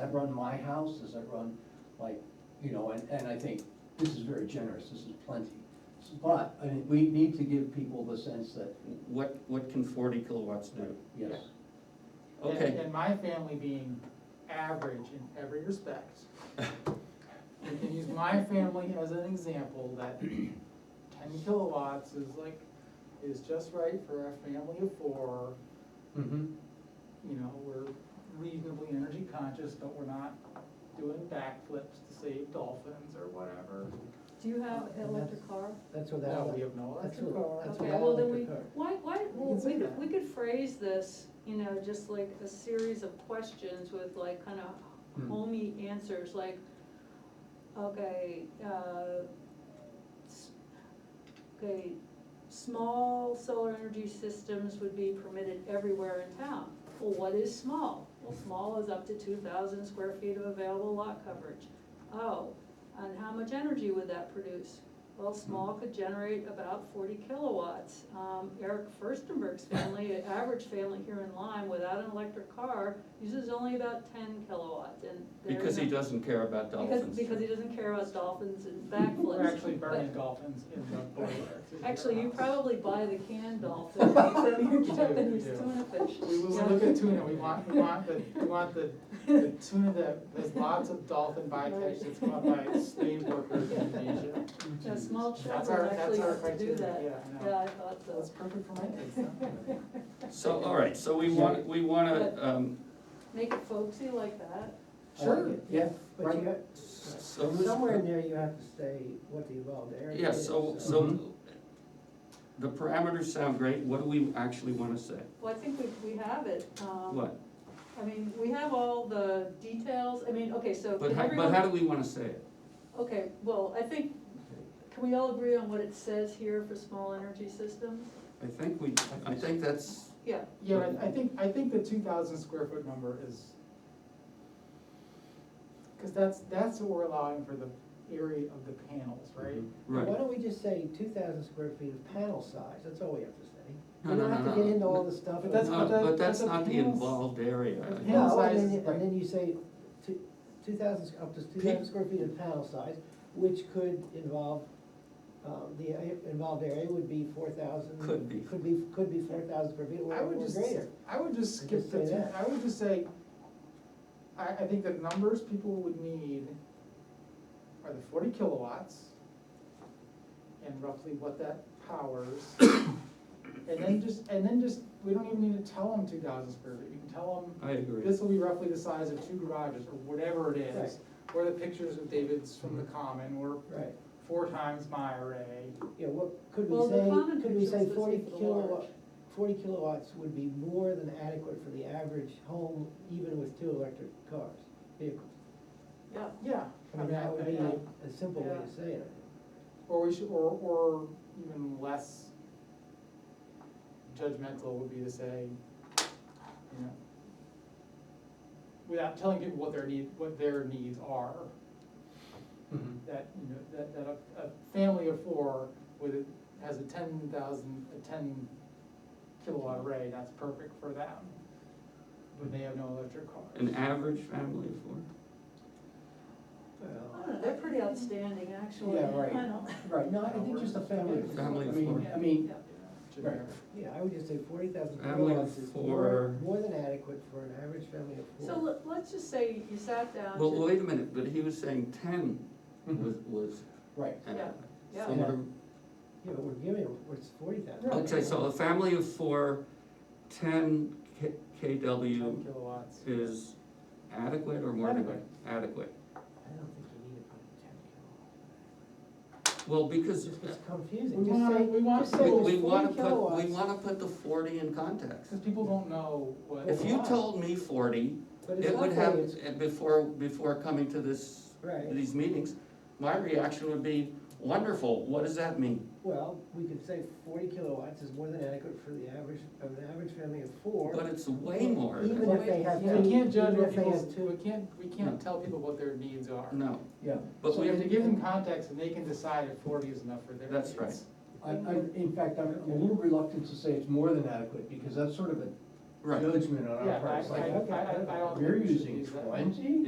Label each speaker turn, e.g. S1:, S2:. S1: I run my house, as I run, like, you know, and, and I think this is very generous, this is plenty. But, I mean, we need to give people the sense that,
S2: What, what can forty kilowatts do?
S1: yes,
S3: And-
S2: Okay,
S3: And my family being average in every respect, we can use my family as an example that ten kilowatts is like, is just right for a family of four.
S1: mm-hmm,
S3: You know, we're reasonably energy conscious, but we're not doing backflips to save dolphins or whatever.
S4: Do you have an electric car?
S5: That's what
S3: No, we
S5: that,
S3: have no
S5: that's
S3: electric
S5: what,
S3: car.
S5: that's what
S4: Okay,
S5: I
S4: well, then
S5: like
S4: we,
S5: to cook.
S4: why, why, well,
S3: can say
S4: we could,
S3: that.
S4: we could phrase this, you know, just like a series of questions with like kind
S1: Hmm.
S4: of homey answers, like, okay, uh, s- okay, small solar energy systems would be permitted everywhere in town. Well, what is small? Well, small is up to two thousand square feet of available lot coverage. Oh, and how much energy would that produce? Well, small could generate about forty kilowatts. Um, Eric Furstenberg's family, an average family here in Lyme, without an electric car, uses only about ten kilowatts and. they're
S2: because he
S4: not-
S2: doesn't care about
S4: Because,
S2: dolphins.
S4: because he doesn't care about dolphins and
S3: We're
S4: backflips.
S3: actually burning
S4: But-
S3: dolphins in the boiler. to heat
S4: Actually,
S3: our
S4: you
S3: house.
S4: probably buy the canned dolphin from your
S3: We do, we
S4: Japanese
S3: do.
S4: tuna fish.
S3: We, we we look at tuna, we want, we want the, we want the, the tuna that, there's lots of dolphin bycatch that's caught by slave workers in Asia.
S4: Yeah, small
S3: That's our,
S4: children
S3: that's
S4: actually
S3: our
S4: have to do
S3: criteria,
S4: that.
S3: yeah, I know.
S4: Yeah, I thought so.
S3: That's perfect for my kids, huh?
S2: So, all right, so we want, we wanna, um,
S4: Make it folksy like that.
S1: I
S3: Sure.
S1: like it, yeah,
S5: But
S1: right,
S5: you got,
S2: so.
S5: but somewhere in there you have to say what the involved area is. Mm-hmm.
S2: Yeah, so,
S1: Mhm.
S2: so the parameters sound great, what do we actually wanna say?
S4: Well, I think we, we have it. um,
S2: What?
S4: I mean, we have all the details, I mean, okay, so
S2: But
S4: can
S2: how, but how
S4: everyone,
S2: do we wanna say it?
S4: okay, well, I think, can we all agree on what it says here for small energy systems?
S2: I think we, I think that's,
S4: Yeah,
S3: Yeah, but I think, I think the two thousand square foot number is. Cause that's, that's what we're allowing for the area of the panels, right?
S2: right.
S5: Why don't we just say two thousand square feet of panel size, that's all we have to say.
S2: No,
S5: We
S2: no,
S5: don't have
S2: no,
S5: to get
S2: no.
S5: into all the stuff.
S3: But that's-
S2: No,
S3: that-
S2: but that's
S3: that's a
S2: not the
S3: panel's-
S2: involved area.
S3: a panel's
S5: No, and then,
S3: size,
S5: you- and then you say two, two thousand, up to two thousand square feet of panel size, which could involve, um, the a- involved area would be four thousand.
S2: Could be.
S5: Could be, could be four thousand square feet or
S3: I would
S5: or
S3: just,
S5: greater.
S3: I would just
S5: I
S3: skip
S5: just
S3: the,
S5: say
S3: two-
S5: that.
S3: I would just say, I, I think the numbers people would need are the forty kilowatts and roughly what that powers. And then just, and then just, we don't even need to tell them two thousand square feet, you can tell
S2: I
S3: them,
S2: agree.
S3: this will be roughly the size of two garages, or whatever it is. Or the pictures of David's from the
S5: Mm-hmm.
S3: common, or
S5: Right,
S3: four times my array.
S5: yeah, what, could
S4: Well,
S5: we
S4: the
S5: say,
S4: common
S5: could we
S4: picture
S5: say
S4: was
S5: forty
S4: listed for the large.
S5: kilowatt, forty kilowatts would be more than adequate for the average home, even with two electric cars, vehicles?
S4: yeah,
S3: Yeah.
S5: I mean, that would be
S3: I- I-
S5: a simple way to say it.
S3: Or we should, or, or even less judgmental would be to say, you know, without telling people what their need, what their needs are,
S1: mhm,
S3: that, you know, that, that a, a family of four with, a- has a ten thousand, a ten kilowatt array, that's perfect for them. But they have no electric car.
S2: An average family of four?
S4: I don't know, they're pretty outstanding, actually.
S1: Yeah, right.
S4: I know.
S1: right, no, I think just a family. of four.
S2: Family of
S1: I mean-
S2: four.
S1: I mean,
S4: Yeah.
S3: Generic.
S5: Yeah, I would just say forty thousand
S2: Family of
S5: kilowatts is more,
S2: four.
S5: more than adequate for an average family of four.
S4: So let- let's just say you sat down
S2: Well,
S4: to,
S2: wait a minute, but he was saying ten
S1: mhm,
S2: was, was
S1: right,
S4: Yeah,
S2: adequate.
S4: yeah.
S2: So we're-
S5: Mm-hmm. Yeah, but we're giving them, it's forty thousand.
S2: Okay, so a family of four, ten K,
S3: Ten
S2: KW
S3: kilowatts.
S2: is adequate or more than
S3: Adequate.
S2: adequate?
S5: I don't think you need to put ten kilowatts.
S2: Well, because
S5: It's just
S3: We
S5: confusing, just
S3: wanna,
S5: say,
S3: we wanna
S5: just
S3: say
S5: say
S2: we,
S3: there's
S5: it's
S2: we wanna
S3: forty
S2: put, we
S3: kilowatts.
S2: wanna put the forty in context.
S3: Because people don't know what.
S2: If you told me forty,
S5: but it's
S2: it
S5: not
S2: would
S5: that
S2: have,
S5: it's,
S2: uh, before, before coming to this,
S5: right,
S2: these meetings, my reaction would be, wonderful, what does that mean?
S5: well, we could say forty kilowatts is more than adequate for the average, of an average family of four.
S2: But it's way more
S5: Even
S2: than,
S5: if they have two,
S3: We can't judge
S5: even
S3: what
S5: if they
S3: people's,
S5: have two.
S3: we can't, we can't tell people what their needs are.
S2: no,
S1: yeah.
S2: but
S3: So
S2: we,
S3: we have to give them context and they can decide if forty is enough for their
S2: That's
S3: needs.
S2: right.
S1: I, I, in fact, I'm a little reluctant to say it's more than adequate, because that's sort of a
S2: right.
S1: judgment on
S3: Yeah,
S1: our part, it's
S3: I,
S1: like,
S3: I, I, I don't think
S1: you're
S3: we should
S1: using
S3: use that.
S1: twenty?